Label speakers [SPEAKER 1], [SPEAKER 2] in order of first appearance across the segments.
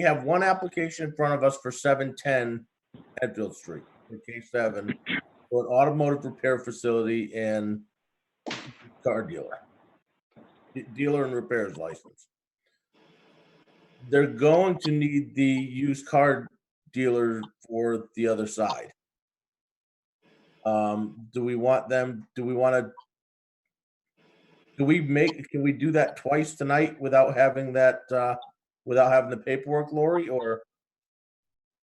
[SPEAKER 1] We have one application in front of us for seven ten Enfield Street, for K seven, for an automotive repair facility and car dealer. De- Dealer and repairs license. They're going to need the used car dealer for the other side. Um, do we want them, do we want to? Do we make, can we do that twice tonight without having that, uh, without having the paperwork, Lori, or,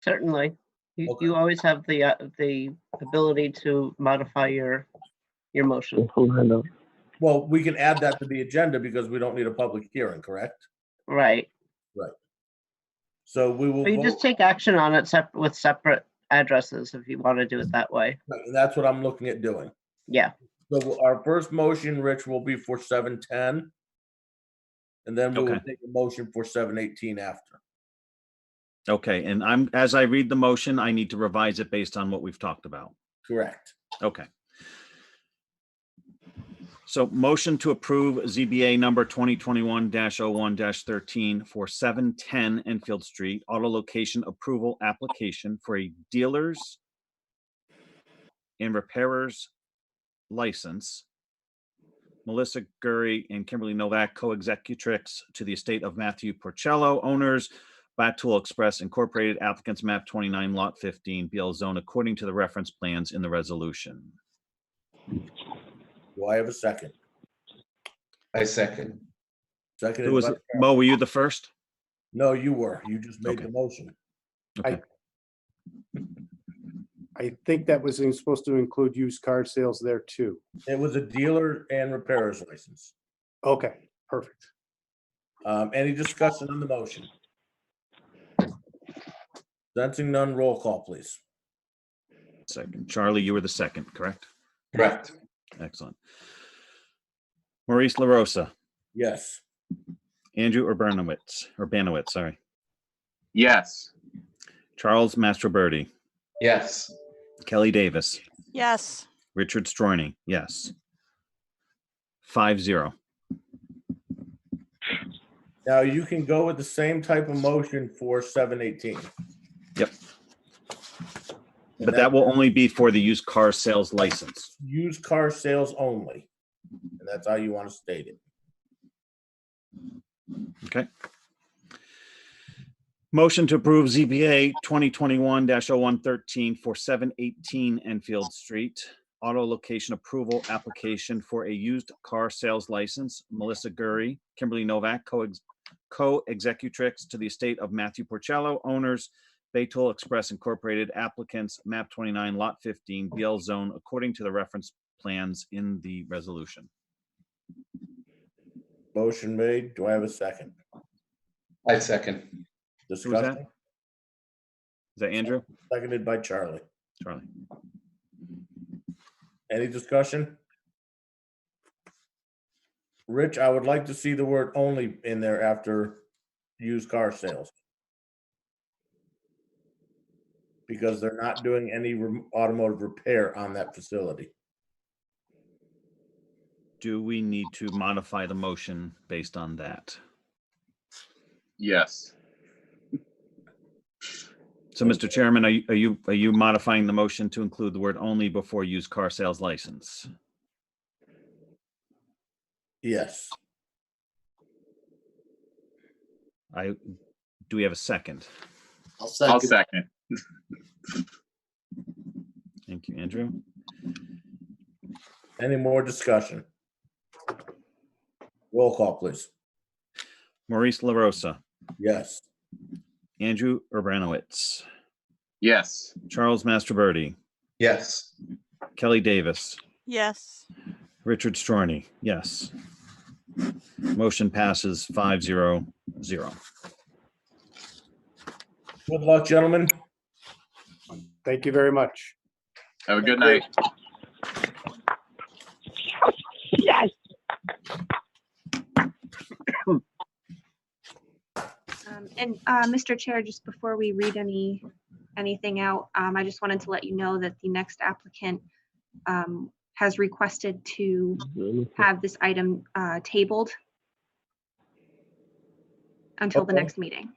[SPEAKER 2] Certainly. You,
[SPEAKER 1] Okay.
[SPEAKER 2] you always have the, uh, the ability to modify your, your motion,
[SPEAKER 1] well, we can add that to the agenda because we don't need a public hearing, correct?
[SPEAKER 2] right?
[SPEAKER 1] So we will,
[SPEAKER 2] But you just
[SPEAKER 1] vote-
[SPEAKER 2] take action on it sep- with separate addresses if you want to do it that way.
[SPEAKER 1] that's what I'm looking at doing.
[SPEAKER 2] Yeah,
[SPEAKER 1] So our first motion, Rich, will be for seven ten. And then we will
[SPEAKER 3] Okay.
[SPEAKER 1] take a motion for seven eighteen after.
[SPEAKER 3] Okay, and I'm, as I read the motion, I need to revise it based on what we've talked about.
[SPEAKER 1] Correct.
[SPEAKER 3] Okay. So motion to approve ZBA number 2021-01-13 for 710 Enfield Street, auto location approval application for a dealer's and repairer's license. Melissa Gurry and Kimberly Novak, co-executrix to the estate of Matthew Porcello, owners, Batul Express Incorporated, applicants map 29, lot 15, BL zone, according to the reference plans in the resolution.
[SPEAKER 1] Do I have a second?
[SPEAKER 4] I second.
[SPEAKER 1] Second.
[SPEAKER 3] Who was, it? Mo, were you the first?
[SPEAKER 1] No, you were. You just made the
[SPEAKER 3] Okay.
[SPEAKER 1] motion.
[SPEAKER 5] I think that was in- supposed to include used car sales there too.
[SPEAKER 1] It was a dealer and repairer's license.
[SPEAKER 5] Okay, perfect.
[SPEAKER 1] Um, any discussion on the motion? Sensing none, roll call, please.
[SPEAKER 3] Second. Charlie, you were the second, correct?
[SPEAKER 4] Correct.
[SPEAKER 3] Excellent. Maurice LaRosa,
[SPEAKER 1] Yes.
[SPEAKER 3] Andrew Urbanowitz, Urbanowitz, sorry.
[SPEAKER 6] Yes.
[SPEAKER 3] Charles Mastroberti,
[SPEAKER 4] Yes.
[SPEAKER 3] Kelly Davis,
[SPEAKER 7] Yes,
[SPEAKER 3] Richard Storni, yes. Five zero.
[SPEAKER 1] Now you can go with the same type of motion for seven eighteen.
[SPEAKER 3] Yep.
[SPEAKER 1] And
[SPEAKER 3] But that will only be for the used car sales license.
[SPEAKER 1] used car sales only. And that's how you want to state it.
[SPEAKER 3] Okay. Motion to approve ZBA 2021-0113 for 718 Enfield Street. Auto location approval application for a used car sales license. Melissa Gurry, Kimberly Novak, co-ex- co-executrix to the estate of Matthew Porcello, owners Baytool Express Incorporated, applicants, map 29, lot 15, BL zone, according to the reference plans in the resolution.
[SPEAKER 1] Motion made. Do I have a second?
[SPEAKER 4] I second.
[SPEAKER 3] Who was that?
[SPEAKER 1] Discussion,
[SPEAKER 3] Is that Andrew?
[SPEAKER 1] seconded by Charlie.
[SPEAKER 3] Charlie?
[SPEAKER 1] Any discussion? Rich, I would like to see the word only in there after used car sales. Because they're not doing any rem- automotive repair on that facility.
[SPEAKER 3] Do we need to modify the motion based on that?
[SPEAKER 6] Yes.
[SPEAKER 3] So, Mr. Chairman, are you, are you, are you modifying the motion to include the word only before used car sales license?
[SPEAKER 1] Yes,
[SPEAKER 3] I, do we have a second?
[SPEAKER 6] I'll second.
[SPEAKER 3] Thank you, Andrew.
[SPEAKER 1] any more discussion? Roll call, please.
[SPEAKER 3] Maurice LaRosa,
[SPEAKER 1] Yes.
[SPEAKER 3] Andrew Urbanowitz,
[SPEAKER 6] Yes.
[SPEAKER 3] Charles Masterbirdy,
[SPEAKER 4] Yes.
[SPEAKER 3] Kelly Davis,
[SPEAKER 7] yes,
[SPEAKER 3] Richard Storni, yes. Motion passes five zero zero.
[SPEAKER 1] Good luck, gentlemen.
[SPEAKER 5] Thank you very much.
[SPEAKER 6] Have a good night.
[SPEAKER 8] Um, And uh, Mr. Chair, just before we read any, anything out, um, I just wanted to let you know that the next applicant um, has requested to have this item uh, tabled until the
[SPEAKER 1] Okay.
[SPEAKER 8] next meeting.